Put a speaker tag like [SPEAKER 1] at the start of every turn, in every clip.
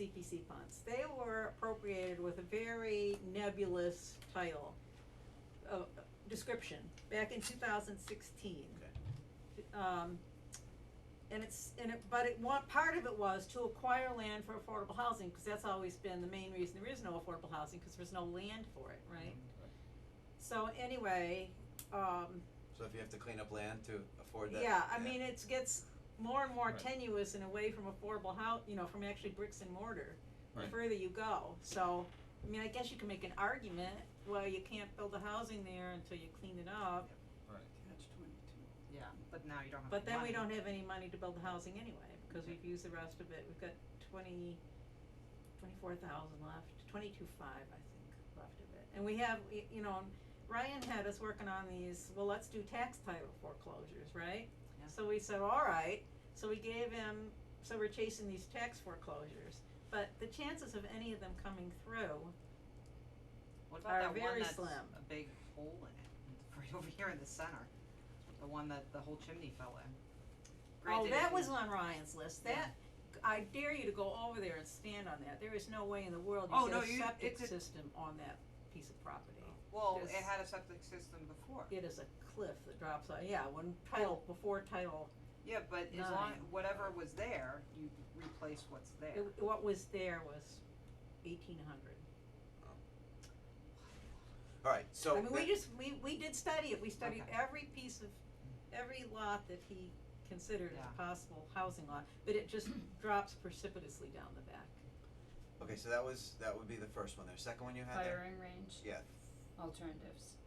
[SPEAKER 1] CPC funds. They were appropriated with a very nebulous title, uh, uh, description, back in two thousand sixteen. Um, and it's, and it, but it, one, part of it was to acquire land for affordable housing, cause that's always been the main reason there is no affordable housing, cause there's no land for it, right?
[SPEAKER 2] Mm-hmm.
[SPEAKER 1] So anyway, um,
[SPEAKER 3] So if you have to clean up land to afford that.
[SPEAKER 1] yeah, I mean, it's gets more and more
[SPEAKER 4] Right.
[SPEAKER 1] tenuous and away from affordable hou- you know, from actually bricks and mortar. The
[SPEAKER 4] Right.
[SPEAKER 1] further you go, so, I mean, I guess you can make an argument, well, you can't build the housing there until you clean it up,
[SPEAKER 4] Right.
[SPEAKER 5] Catch twenty-two.
[SPEAKER 2] Yeah, but now you don't have
[SPEAKER 1] but then we
[SPEAKER 2] money.
[SPEAKER 1] don't have any money to build the housing anyway, because
[SPEAKER 2] Okay.
[SPEAKER 1] we've used the rest of it, we've got twenty, twenty-four thousand left, twenty-two five, I think, left of it. And we have, y- you know, Ryan had us working on these, well, let's do tax title foreclosures, right?
[SPEAKER 2] Yeah.
[SPEAKER 1] So we said, all right, so we gave him, so we're chasing these tax foreclosures, but the chances of any of them coming through,
[SPEAKER 2] What
[SPEAKER 1] are
[SPEAKER 2] about that one
[SPEAKER 1] very
[SPEAKER 2] that's
[SPEAKER 1] slim.
[SPEAKER 2] a big hole in it, It's right over here in the center? The one that the whole chimney fell in.
[SPEAKER 1] oh,
[SPEAKER 2] Granted, if
[SPEAKER 1] that
[SPEAKER 2] you-
[SPEAKER 1] was on Ryan's list,
[SPEAKER 2] Yeah.
[SPEAKER 1] that, I dare you to go over there and stand on that, there is no way in the world
[SPEAKER 2] Oh,
[SPEAKER 1] you
[SPEAKER 2] no,
[SPEAKER 1] get a
[SPEAKER 2] you-
[SPEAKER 1] septic
[SPEAKER 2] it's a-
[SPEAKER 1] system on that piece of property.
[SPEAKER 2] Well, it
[SPEAKER 1] Yes.
[SPEAKER 2] had a septic system before.
[SPEAKER 1] It is a cliff that drops out, yeah, when title, before title,
[SPEAKER 2] Yeah, but as long,
[SPEAKER 1] Nine.
[SPEAKER 2] whatever was there, you replace what's there.
[SPEAKER 1] it, what was there was eighteen hundred.
[SPEAKER 3] Alright, so.
[SPEAKER 1] I mean, we
[SPEAKER 3] that-
[SPEAKER 1] just, we, we did study it, we studied
[SPEAKER 2] Okay.
[SPEAKER 1] every piece of, every lot that he considered as
[SPEAKER 2] Yeah.
[SPEAKER 1] possible housing lot, but it just drops precipitously down the back.
[SPEAKER 3] Okay, so that was, that would be the first one there. Second one you had there?
[SPEAKER 6] Firing range
[SPEAKER 3] Yeah,
[SPEAKER 6] alternatives.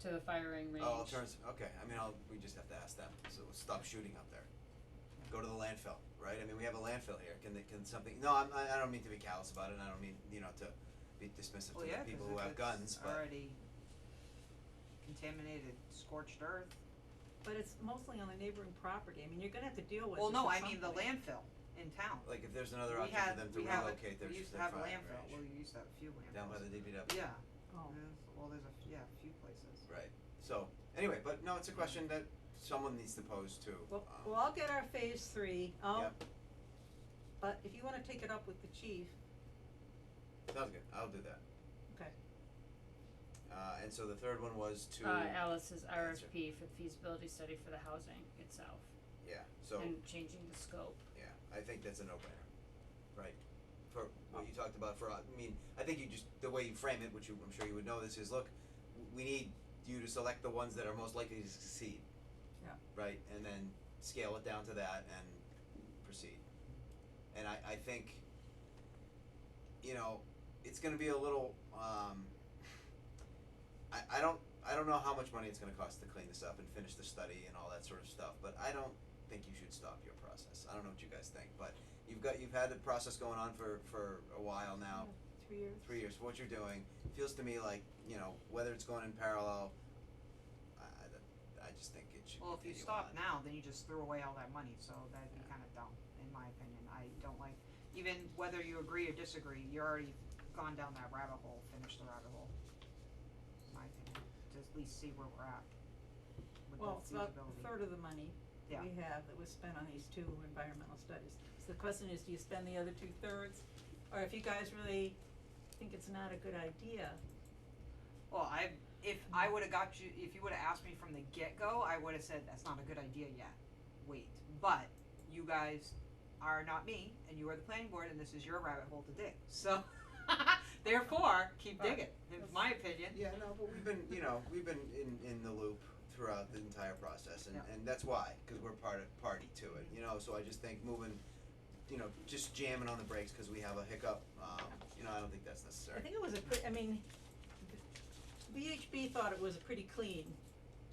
[SPEAKER 6] To the firing range.
[SPEAKER 3] oh, alternative, okay, I mean, I'll, we just have to ask them, so we'll stop shooting up there. Go to the landfill, right? I mean, we have a landfill here. Can they, can something, no, I'm, I, I don't mean to be callous about it, and I don't mean, you know, to be dismissive
[SPEAKER 2] Well,
[SPEAKER 3] to
[SPEAKER 2] yeah,
[SPEAKER 3] the
[SPEAKER 2] 'cause
[SPEAKER 3] people
[SPEAKER 2] if
[SPEAKER 3] who have
[SPEAKER 2] it's
[SPEAKER 3] guns, but.
[SPEAKER 2] Already contaminated, scorched earth.
[SPEAKER 1] But it's mostly on the neighboring property, I mean, you're gonna have to deal with
[SPEAKER 2] Well,
[SPEAKER 1] this
[SPEAKER 2] no,
[SPEAKER 1] at
[SPEAKER 2] I
[SPEAKER 1] some
[SPEAKER 2] mean the
[SPEAKER 1] point.
[SPEAKER 2] landfill in town.
[SPEAKER 3] Like, if there's another
[SPEAKER 2] We
[SPEAKER 3] option
[SPEAKER 2] had-
[SPEAKER 3] for them to
[SPEAKER 2] we have a-
[SPEAKER 3] relocate their,
[SPEAKER 2] We used to
[SPEAKER 3] their
[SPEAKER 2] have a
[SPEAKER 3] firing
[SPEAKER 2] landfill, well,
[SPEAKER 3] range,
[SPEAKER 2] we used to have a few landfills.
[SPEAKER 3] down by the DPW.
[SPEAKER 2] Yeah,
[SPEAKER 1] Oh,
[SPEAKER 2] there's- well, there's a, f- yeah, a few places.
[SPEAKER 3] Right, so, anyway, but no, it's a question that someone needs to pose to,
[SPEAKER 1] well,
[SPEAKER 3] um,
[SPEAKER 1] well, I'll get our phase three, I'll,
[SPEAKER 3] Yep.
[SPEAKER 1] but if you wanna take it up with the chief,
[SPEAKER 3] sounds good, I'll do that.
[SPEAKER 1] Okay.
[SPEAKER 3] Uh, and so the third one was to,
[SPEAKER 6] Uh, Alice's
[SPEAKER 3] answer.
[SPEAKER 6] RFP for feasibility study for the housing itself
[SPEAKER 3] yeah, so,
[SPEAKER 6] and changing the scope.
[SPEAKER 3] yeah, I think that's a no-brainer, right? For what you talked about for, uh, I mean, I think you just, the way you frame it, which you, I'm sure you would know this, is look, w- we need you to select the ones that are most likely to succeed.
[SPEAKER 1] Yeah.
[SPEAKER 3] Right, and then scale it down to that and proceed. And I, I think, you know, it's gonna be a little, um, I, I don't, I don't know how much money it's gonna cost to clean this up and finish the study and all that sort of stuff, but I don't think you should stop your process. I don't know what you guys think, but you've got, you've had the process going on for, for a while now
[SPEAKER 1] three years.
[SPEAKER 3] three years, what you're doing feels to me like, you know, whether it's going in parallel, I, I, I just think it should
[SPEAKER 2] Well, if you
[SPEAKER 3] continue on.
[SPEAKER 2] stop now, then you just threw away all that money, so that'd be kinda dumb, in my opinion, I don't like, even whether you agree or disagree, you're already gone down that rabbit hole, finished the rabbit hole. In my opinion, to at least see where we're at with
[SPEAKER 1] Well,
[SPEAKER 2] the
[SPEAKER 1] it's about a
[SPEAKER 2] feasibility.
[SPEAKER 1] third of the money
[SPEAKER 2] Yeah.
[SPEAKER 1] we have that was spent on these two environmental studies. So the question is, do you spend the other two thirds? Or if you guys really think it's not a good idea,
[SPEAKER 2] Well, I, if I would've got you, if you would've asked me from the get-go, I would've said, that's not a good idea yet, wait, but you guys are not me, and you are the planning board, and this is your rabbit hole to dig, so, therefore, keep digging, in my opinion.
[SPEAKER 3] Yeah, no, but we've been, you know, we've been in, in the loop throughout the entire process, and,
[SPEAKER 2] Yeah.
[SPEAKER 3] and that's why, because we're part of, party to it, you know, so I just think moving, you know, just jamming on the brakes because we have a hiccup, um, you know, I don't think that's necessary.
[SPEAKER 1] I think it was a pre- I mean, VHB thought it was a pretty clean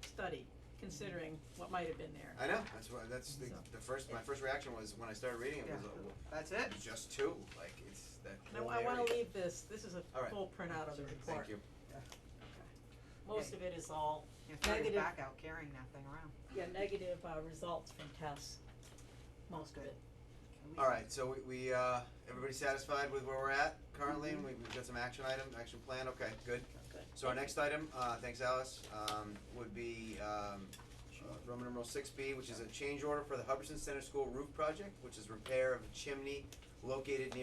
[SPEAKER 1] study considering what might have been there.
[SPEAKER 3] I know, that's why, that's the,
[SPEAKER 1] So-
[SPEAKER 3] the first, my first reaction was, when I started reading it, was,
[SPEAKER 2] Yeah.
[SPEAKER 3] uh, well,
[SPEAKER 2] That's it.
[SPEAKER 3] just two, like, it's that
[SPEAKER 1] And
[SPEAKER 3] whole
[SPEAKER 1] I, I wanna
[SPEAKER 3] area.
[SPEAKER 1] leave this, this is a
[SPEAKER 3] All right.
[SPEAKER 1] full printout of the report.
[SPEAKER 3] Thank you.
[SPEAKER 1] Most of it is all,
[SPEAKER 2] You throw your
[SPEAKER 1] Negative.
[SPEAKER 2] back out carrying that thing around.
[SPEAKER 1] yeah, negative, uh, results from tests, most of
[SPEAKER 2] Good.
[SPEAKER 1] it.
[SPEAKER 2] At least-
[SPEAKER 3] All right, so we, we uh, everybody satisfied with where we're at currently, and we, we've got some action item, action plan. Okay, good.
[SPEAKER 1] Good.
[SPEAKER 3] So our next item, uh, thanks Alice, um, would be um, uh, Roman numeral six B, which is a change order for the Hubbardson Center School roof project, which is repair of a chimney located near